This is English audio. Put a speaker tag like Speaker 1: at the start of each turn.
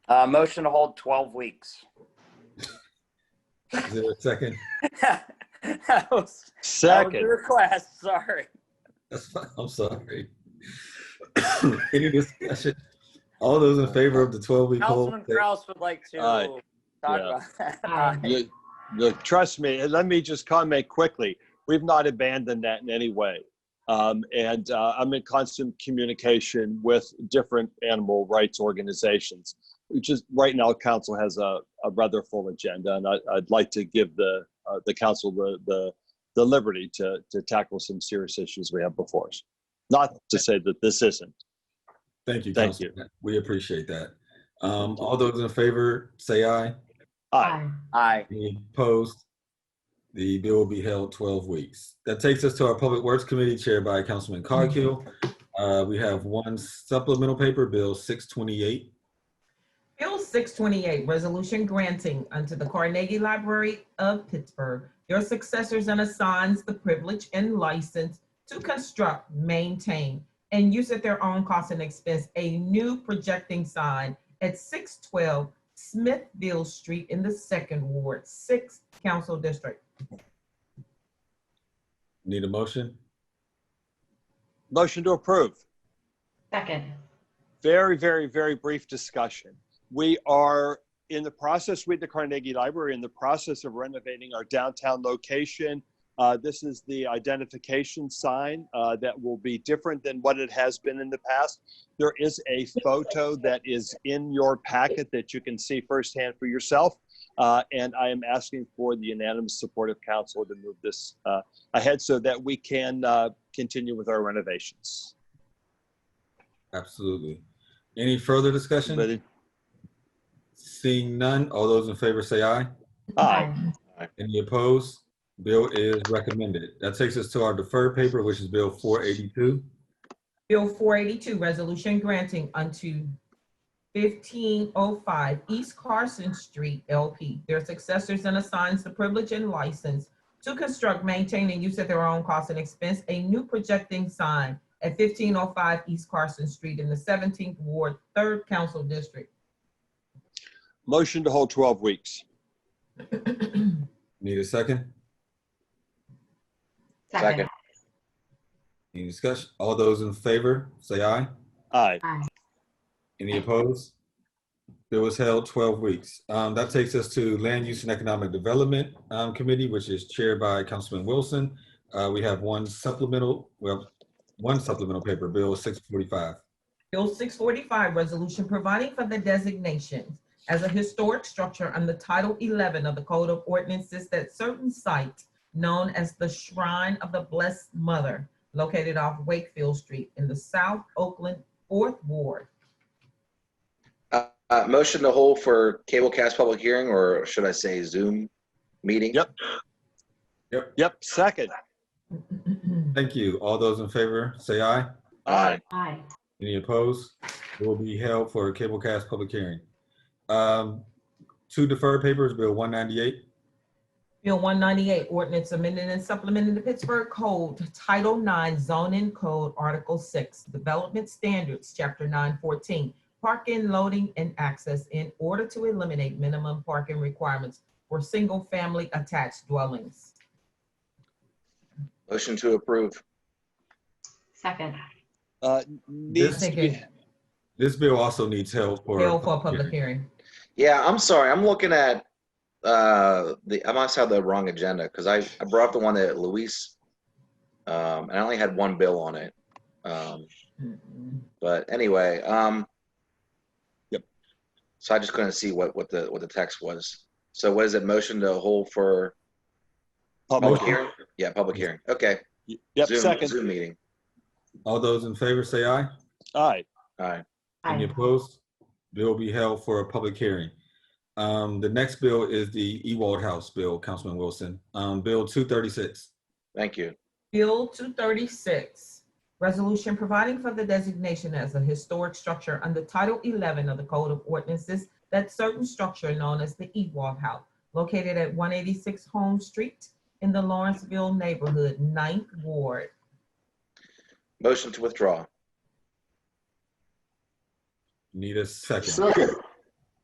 Speaker 1: Uh, motion to hold 12 weeks.
Speaker 2: Is there a second?
Speaker 1: That was- that was
Speaker 3: Second.
Speaker 1: Your request, sorry.
Speaker 2: That's fine. I'm sorry. Any discussion? All those in favor of the 12-week hold?
Speaker 1: Councilman
Speaker 2: say-
Speaker 1: Kraus would like to
Speaker 3: Aye.
Speaker 1: talk about
Speaker 4: Aye.
Speaker 1: that.
Speaker 3: You- you- Trust me, and let me just comment quickly. We've not abandoned that in any way. Um, And uh, I'm in constant communication with different animal rights organizations, which is, right now, council has a a rather full agenda, and I- I'd like to give the, uh, the council the, the the liberty to, to tackle some serious issues we have before us. Not to say that this isn't.
Speaker 2: Thank you.
Speaker 3: Thank
Speaker 2: Councilman. We appreciate that. Um, All those in favor, say aye.
Speaker 3: Aye.
Speaker 1: Aye.
Speaker 2: Any opposed? The bill will be held 12 weeks. That takes us to our Public Works Committee chaired by Councilman Coghill. Uh, We have one supplemental paper, Bill 628.
Speaker 5: Bill 628, Resolution Granting unto the Carnegie Library of Pittsburgh your successors and assigns the privilege and license to construct, maintain, and use at their own cost and expense a new projecting sign at 612 Smithville Street in the Second Ward, 6th Council District.
Speaker 2: Need a motion?
Speaker 3: Motion to approve.
Speaker 4: Second.
Speaker 3: very, very, very brief discussion. We are in the process with the Carnegie Library, in the process of renovating our downtown location. Uh, this is the identification sign uh, that will be different than what it has been in the past. There is a photo that is in your packet that you can see firsthand for yourself. Uh, and I am asking for the unanimous support of council to move this uh, ahead so that we can uh, continue with our renovations.
Speaker 2: Absolutely. Any further discussion?
Speaker 3: Ready?
Speaker 2: Seeing none, all those in favor say aye.
Speaker 3: Aye.
Speaker 2: Any opposed? Bill is recommended. That takes us to our deferred paper, which is Bill 482.
Speaker 5: Bill 482, resolution granting unto 1505 East Carson Street LP, their successors and assigns the privilege and license to construct, maintain, and use at their own cost and expense a new projecting sign at 1505 East Carson Street in the 17th Ward, 3rd Council District.
Speaker 3: Motion to hold 12 weeks.
Speaker 2: Need a second?
Speaker 4: Second.
Speaker 2: Any discussion? All those in favor, say aye.
Speaker 3: Aye.
Speaker 4: Aye.
Speaker 2: Any opposed? Bill is held 12 weeks. Um, That takes us to Land Use and Economic Development um, Committee, which is chaired by Councilman Wilson. Uh, We have one supplemental, well, one supplemental paper, Bill 645.
Speaker 5: Bill 645, resolution providing for the designations as a historic structure under Title 11 of the Code of Ordinances that certain site known as the Shrine of the Blessed Mother located off Wakefield Street in the South Oakland 4th Ward.
Speaker 6: Uh, uh, Motion to hold for cablecast public hearing, or should I say Zoom meeting?
Speaker 3: Yep. Yep, second.
Speaker 2: Thank you. All those in favor, say aye.
Speaker 6: Aye.
Speaker 4: Aye.
Speaker 2: Any opposed? It will be held for a cablecast public hearing. Um, Two deferred papers, Bill 198.
Speaker 5: Bill 198, ordinance amending and supplementing the Pittsburgh Code, Title 9 Zoning Code, Article 6, Development Standards, Chapter 914, Parking, Loading, and Access in order to eliminate minimum parking requirements for single-family attached dwellings.
Speaker 6: Motion to approve.
Speaker 4: Second.
Speaker 3: Uh, Needs to be,
Speaker 2: This bill also needs help for.
Speaker 5: Bill for a public hearing.
Speaker 6: Yeah, I'm sorry, I'm looking at, uh, the, I must have the wrong agenda, because I, I brought up the one that Luis, um, and I only had one bill on it. Um,
Speaker 5: Mm-mm.
Speaker 6: But anyway, um.
Speaker 3: Yep.
Speaker 6: So I just couldn't see what, what the, what the text was. So what is it, motion to hold for public
Speaker 3: public hearing.
Speaker 6: hearing? Yeah, public hearing, okay.
Speaker 3: Yep,
Speaker 6: Oh, Zoom-
Speaker 3: second.
Speaker 6: Zoom meeting,
Speaker 2: All those in favor, say aye.
Speaker 3: Aye.
Speaker 6: all right.
Speaker 2: Any
Speaker 4: Aye.
Speaker 2: opposed? Bill will be held for a public hearing. Um, the next bill is the Ewald House bill, Councilman Wilson. Um, Bill two thirty-six.
Speaker 6: Thank you.
Speaker 5: Bill 236, resolution providing for the designation as a historic structure under Title 11 of the Code of Ordinances that certain structure known as the Ewald House, located at 186 Home Street in the Lawrenceville neighborhood, 9th Ward.
Speaker 6: Motion to withdraw.
Speaker 2: Need a second.
Speaker 7: Second.